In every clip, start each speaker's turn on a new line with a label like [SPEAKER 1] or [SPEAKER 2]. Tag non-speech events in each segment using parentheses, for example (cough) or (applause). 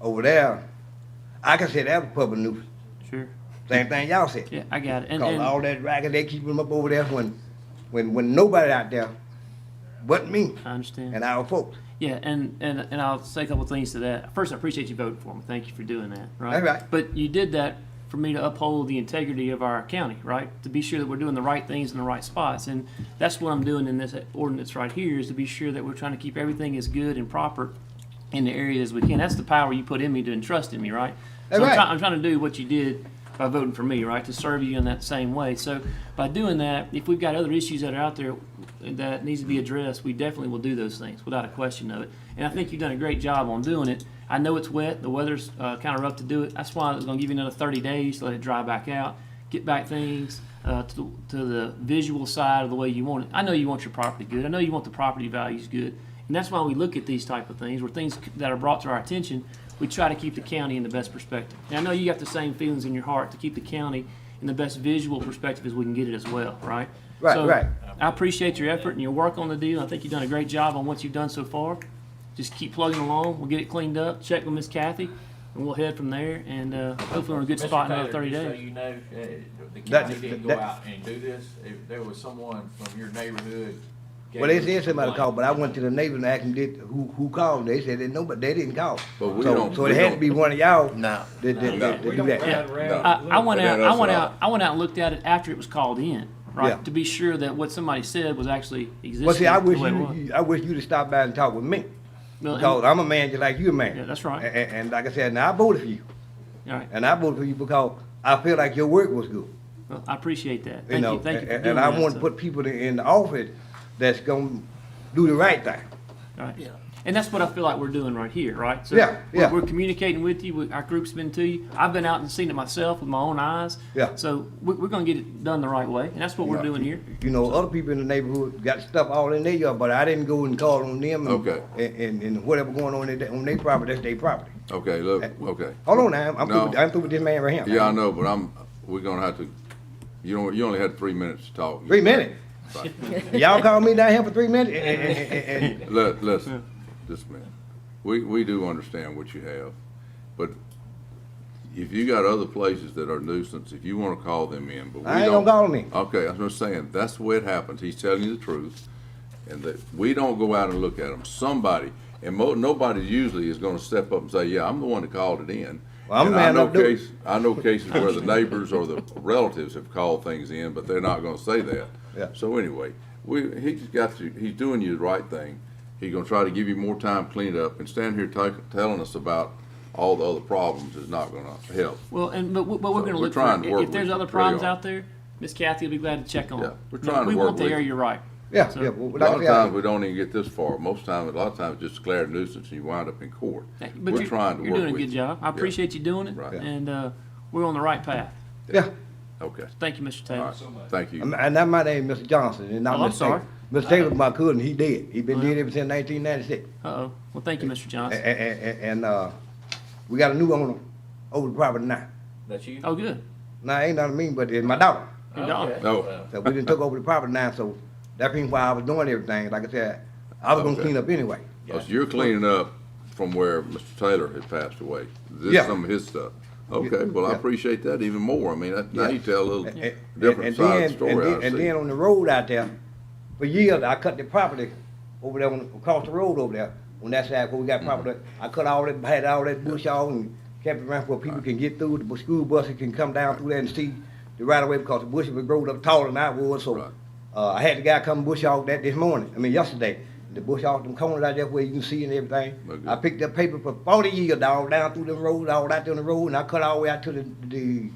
[SPEAKER 1] over there, I consider that was public nuisance.
[SPEAKER 2] Sure.
[SPEAKER 1] Same thing y'all said.
[SPEAKER 2] Yeah, I got it. And,
[SPEAKER 1] Cause
[SPEAKER 2] and-
[SPEAKER 1] all that racket, they keep them up over there when, when, when nobody out there but me
[SPEAKER 2] I understand.
[SPEAKER 1] and our folks.
[SPEAKER 2] Yeah, and, and, and I'll say a couple things to that. First, I appreciate you voting for me. Thank you for doing that, right?
[SPEAKER 1] That's right.
[SPEAKER 2] But you did that for me to uphold the integrity of our county, right? To be sure that we're doing the right things in the right spots. And that's what I'm doing in this ordinance right here, is to be sure that we're trying to keep everything as good and proper in the area as we can. That's the power you put in me to entrust in me, right? So
[SPEAKER 1] That's
[SPEAKER 2] I'm
[SPEAKER 1] right.
[SPEAKER 2] try- I'm trying to do what you did by voting for me, right? To serve you in that same way. So by doing that, if we've got other issues that are out there that needs to be addressed, we definitely will do those things without a question of it. And I think you've done a great job on doing it. I know it's wet. The weather's uh, kind of rough to do it. That's why I was going to give you another 30 days to let it dry back out, get back things uh, to, to the visual side of the way you want it. I know you want your property good. I know you want the property values good. And that's why we look at these type of things, where things that are brought to our attention, we try to keep the county in the best perspective. And I know you got the same feelings in your heart to keep the county in the best visual perspective as we can get it as well, right?
[SPEAKER 1] Right,
[SPEAKER 2] So,
[SPEAKER 1] right.
[SPEAKER 2] I appreciate your effort and your work on the deal. I think you've done a great job on what you've done so far. Just keep plugging along. We'll get it cleaned up. Check with Miss Kathy, and we'll head from there. And uh, hopefully, we're in a good
[SPEAKER 3] Mr.
[SPEAKER 2] spot in
[SPEAKER 3] Taylor,
[SPEAKER 2] another 30
[SPEAKER 3] just
[SPEAKER 2] days.
[SPEAKER 3] So you know, uh, the
[SPEAKER 1] That-
[SPEAKER 3] county didn't go
[SPEAKER 1] that-
[SPEAKER 3] out and do this. If there was someone from your neighborhood. gave
[SPEAKER 1] Well, they
[SPEAKER 3] you a
[SPEAKER 1] said somebody
[SPEAKER 3] complaint.
[SPEAKER 1] called, but I went to the neighbors and asked them, did, who, who called? They said they nobody, they didn't call.
[SPEAKER 4] But we
[SPEAKER 1] So-
[SPEAKER 4] don't-
[SPEAKER 1] So
[SPEAKER 4] we
[SPEAKER 1] it had to
[SPEAKER 4] don't-
[SPEAKER 1] be one of y'all
[SPEAKER 4] No.
[SPEAKER 1] that, that,
[SPEAKER 4] No.
[SPEAKER 1] that- that
[SPEAKER 5] We
[SPEAKER 1] do
[SPEAKER 5] don't
[SPEAKER 1] that.
[SPEAKER 5] ride around.
[SPEAKER 4] No.
[SPEAKER 2] I, I went
[SPEAKER 4] But
[SPEAKER 2] out.
[SPEAKER 4] that
[SPEAKER 2] I
[SPEAKER 4] us
[SPEAKER 2] went
[SPEAKER 4] all.
[SPEAKER 2] out. I went out and looked at it after it was called in, right?
[SPEAKER 1] Yeah.
[SPEAKER 2] To be sure that what somebody said was actually existing.
[SPEAKER 1] Well, see, I
[SPEAKER 2] the
[SPEAKER 1] wish
[SPEAKER 2] way it
[SPEAKER 1] you,
[SPEAKER 2] was.
[SPEAKER 1] you- I wish you to stop by and talk with me,
[SPEAKER 2] Well, and-
[SPEAKER 1] because I'm a man just like you a man.
[SPEAKER 2] Yeah, that's right.
[SPEAKER 1] A- a- And, like I said, now I voted for you,
[SPEAKER 2] all right.
[SPEAKER 1] and I voted for you because I feel like your work was good.
[SPEAKER 2] Well, I appreciate that. Thank
[SPEAKER 1] you know,
[SPEAKER 2] you. Thank you. For
[SPEAKER 1] and,
[SPEAKER 2] doing
[SPEAKER 1] and I
[SPEAKER 2] that,
[SPEAKER 1] want
[SPEAKER 2] so.
[SPEAKER 1] to put people in, in the office that's gonna do the right thing.
[SPEAKER 2] Right. And that's what I feel like we're doing right here, right? So
[SPEAKER 1] Yeah,
[SPEAKER 2] we're-
[SPEAKER 1] yeah.
[SPEAKER 2] We're communicating with you. we- Our group's been to you. I've been out and seen it myself with my own eyes.
[SPEAKER 1] Yeah.
[SPEAKER 2] So we're, we're going to get it done the right way, and that's what we're
[SPEAKER 1] Yeah.
[SPEAKER 2] doing here.
[SPEAKER 1] You know, other people in the neighborhood got stuff all in their yard, but I didn't go and call on them. and-
[SPEAKER 4] Okay.
[SPEAKER 1] And, and, and whatever going on in their, on their property, that's their property.
[SPEAKER 4] Okay, look, okay.
[SPEAKER 1] Hold on now, I'm- I'm through,
[SPEAKER 4] No.
[SPEAKER 1] with- I'm through with this man right here.
[SPEAKER 4] Yeah, I know, but I'm, we're gonna have to, you know, you only had three minutes to talk.
[SPEAKER 1] Three
[SPEAKER 2] (laughs)
[SPEAKER 1] minutes.
[SPEAKER 4] Right.
[SPEAKER 1] Y'all call me down here for three minutes? And- and- and- and-
[SPEAKER 4] Let, listen, this man, we, we do understand what you have, but if you got other places that are nuisance, if you wanna call them in, but we don't.
[SPEAKER 1] I ain't gonna call them in.
[SPEAKER 4] Okay, I'm just saying, that's the way it happens, he's telling you the truth, and that, we don't go out and look at them, somebody, and mo, nobody usually is gonna step up and say, yeah, I'm the one that called it in.
[SPEAKER 1] Well, I'm
[SPEAKER 4] And
[SPEAKER 1] the
[SPEAKER 4] I
[SPEAKER 1] man
[SPEAKER 4] know
[SPEAKER 1] that do it.
[SPEAKER 4] case- I know cases where the neighbors or the relatives have called things in, but they're not gonna say that.
[SPEAKER 1] Yeah.
[SPEAKER 4] So anyway, we, he's got you, he's doing you the right thing. He's gonna try to give you more time cleaned up and stand here ta- telling us about all the other problems is not gonna help.
[SPEAKER 2] Well, and but, we- but we're
[SPEAKER 4] So
[SPEAKER 2] going
[SPEAKER 4] we're
[SPEAKER 2] look
[SPEAKER 4] trying
[SPEAKER 2] for
[SPEAKER 4] to
[SPEAKER 2] if-
[SPEAKER 4] work
[SPEAKER 2] if there's
[SPEAKER 4] with
[SPEAKER 2] other
[SPEAKER 4] you.
[SPEAKER 2] problems
[SPEAKER 4] Really are.
[SPEAKER 2] out there. Miss Kathy will be glad to check on.
[SPEAKER 4] Yeah,
[SPEAKER 2] it.
[SPEAKER 4] we're trying to
[SPEAKER 2] We
[SPEAKER 4] work
[SPEAKER 2] want the
[SPEAKER 4] with you.
[SPEAKER 2] area right.
[SPEAKER 1] Yeah,
[SPEAKER 2] So-
[SPEAKER 1] yeah, well,
[SPEAKER 4] A
[SPEAKER 1] like
[SPEAKER 4] lot
[SPEAKER 1] I
[SPEAKER 4] of
[SPEAKER 1] said, I-
[SPEAKER 4] times, we don't even get this far. Most times, a lot of times, just declare a nuisance and you wind up in court.
[SPEAKER 2] But
[SPEAKER 4] We're
[SPEAKER 2] you're,
[SPEAKER 4] trying to
[SPEAKER 2] you're
[SPEAKER 4] work
[SPEAKER 2] doing a
[SPEAKER 4] with
[SPEAKER 2] good
[SPEAKER 4] you.
[SPEAKER 2] job. I
[SPEAKER 4] Yeah.
[SPEAKER 2] appreciate you doing it,
[SPEAKER 4] Right. Yeah.
[SPEAKER 2] and uh, we're on the right path.
[SPEAKER 1] yeah.
[SPEAKER 4] Okay,
[SPEAKER 2] Thank you, Mr. Taylor.
[SPEAKER 4] all right, thank you.
[SPEAKER 1] And and that my name is Mr. Johnson, and not
[SPEAKER 2] Oh, I'm
[SPEAKER 1] Mr. Taylor.
[SPEAKER 2] sorry.
[SPEAKER 1] Mr. Taylor's my cousin, he dead. He been dead ever since nineteen ninety-six.
[SPEAKER 2] Uh oh. Well, thank you, Mr. Johnson.
[SPEAKER 1] And, and, and, uh, we got a new owner over the property now.
[SPEAKER 3] That you?
[SPEAKER 2] Oh, good.
[SPEAKER 1] Now, ain't nothing mean, but it's my daughter.
[SPEAKER 2] Good dog.
[SPEAKER 3] Okay.
[SPEAKER 4] No.
[SPEAKER 3] Well,
[SPEAKER 1] So we done
[SPEAKER 4] (laughs)
[SPEAKER 1] took over the property now, so that being why I was doing everything, like I said, I was gonna
[SPEAKER 4] Okay.
[SPEAKER 1] clean up anyway.
[SPEAKER 4] Oh, So you're cleaning up from where Mr. Taylor had passed away. This
[SPEAKER 1] Yeah.
[SPEAKER 4] is some of his stuff. Okay, well, I
[SPEAKER 1] Yeah.
[SPEAKER 4] appreciate that even more. I mean, that- now
[SPEAKER 1] Yeah.
[SPEAKER 4] you tell a little
[SPEAKER 1] And- and-
[SPEAKER 4] different
[SPEAKER 1] and
[SPEAKER 4] side
[SPEAKER 1] then-
[SPEAKER 4] of the story,
[SPEAKER 1] and
[SPEAKER 4] I
[SPEAKER 1] then- And
[SPEAKER 4] see.
[SPEAKER 1] then on the road out there, for years, I cut the property over there, on- across the road over there, on that side where we got property. I cut all that, had all that bush off and kept it around where people can get through, the bu- school buses can come down through there and see the right of way because the bushes was growing up taller than I was, so.
[SPEAKER 4] Right.
[SPEAKER 1] Uh, I had the guy come bush off that this morning, I mean yesterday, the bush off them corners out there where you can see and everything.
[SPEAKER 4] Well, good.
[SPEAKER 1] I picked up paper for forty years, dog, down through the road, all out there on the road, and I cut all the way out to the, the,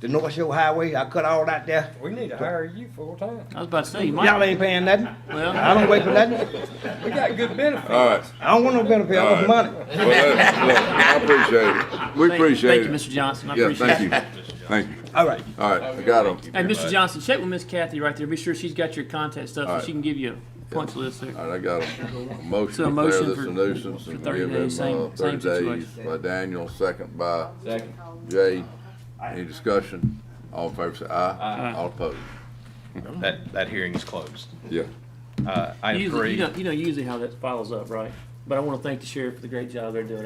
[SPEAKER 1] the North Shore Highway, I cut all out there.
[SPEAKER 5] We need to hire you full time.
[SPEAKER 2] I was about to say you might.
[SPEAKER 1] Y'all ain't paying nothing.
[SPEAKER 2] Well-
[SPEAKER 1] I don't wait for nothing.
[SPEAKER 5] We got good benefits.
[SPEAKER 4] All right.
[SPEAKER 1] I don't want no benefit, I want
[SPEAKER 4] Alright.
[SPEAKER 1] money.
[SPEAKER 4] Well, look, look, I appreciate it. We
[SPEAKER 2] Thank-
[SPEAKER 4] appreciate
[SPEAKER 2] Thank you, Mr.
[SPEAKER 4] it.
[SPEAKER 2] Johnson. I
[SPEAKER 4] Yeah,
[SPEAKER 2] appreciate it.
[SPEAKER 4] thank you. Thank you.
[SPEAKER 1] All right.
[SPEAKER 4] All right, I got him.
[SPEAKER 2] Hey, Mr. Johnson, check with Miss Kathy right there. Be sure she's got your contact stuff so
[SPEAKER 4] Alright.
[SPEAKER 2] she can give you a punch list there.
[SPEAKER 4] All right, I got a a
[SPEAKER 2] So a
[SPEAKER 4] motion to
[SPEAKER 2] motion
[SPEAKER 4] declare this
[SPEAKER 2] for-
[SPEAKER 4] a nuisance and
[SPEAKER 2] for 30
[SPEAKER 4] give
[SPEAKER 2] days,
[SPEAKER 4] him uh,
[SPEAKER 2] same- same
[SPEAKER 4] thirty days
[SPEAKER 2] situation.
[SPEAKER 4] by Daniel, second by
[SPEAKER 3] Second.
[SPEAKER 4] Jay. Any discussion? All in favor, say aye. All opposed?
[SPEAKER 6] That, that hearing is closed.
[SPEAKER 4] Yeah.
[SPEAKER 6] Uh, item
[SPEAKER 2] Usually-
[SPEAKER 6] three.
[SPEAKER 2] You know, you know usually how that follows up, right? But I want to thank the sheriff for the great job they're doing.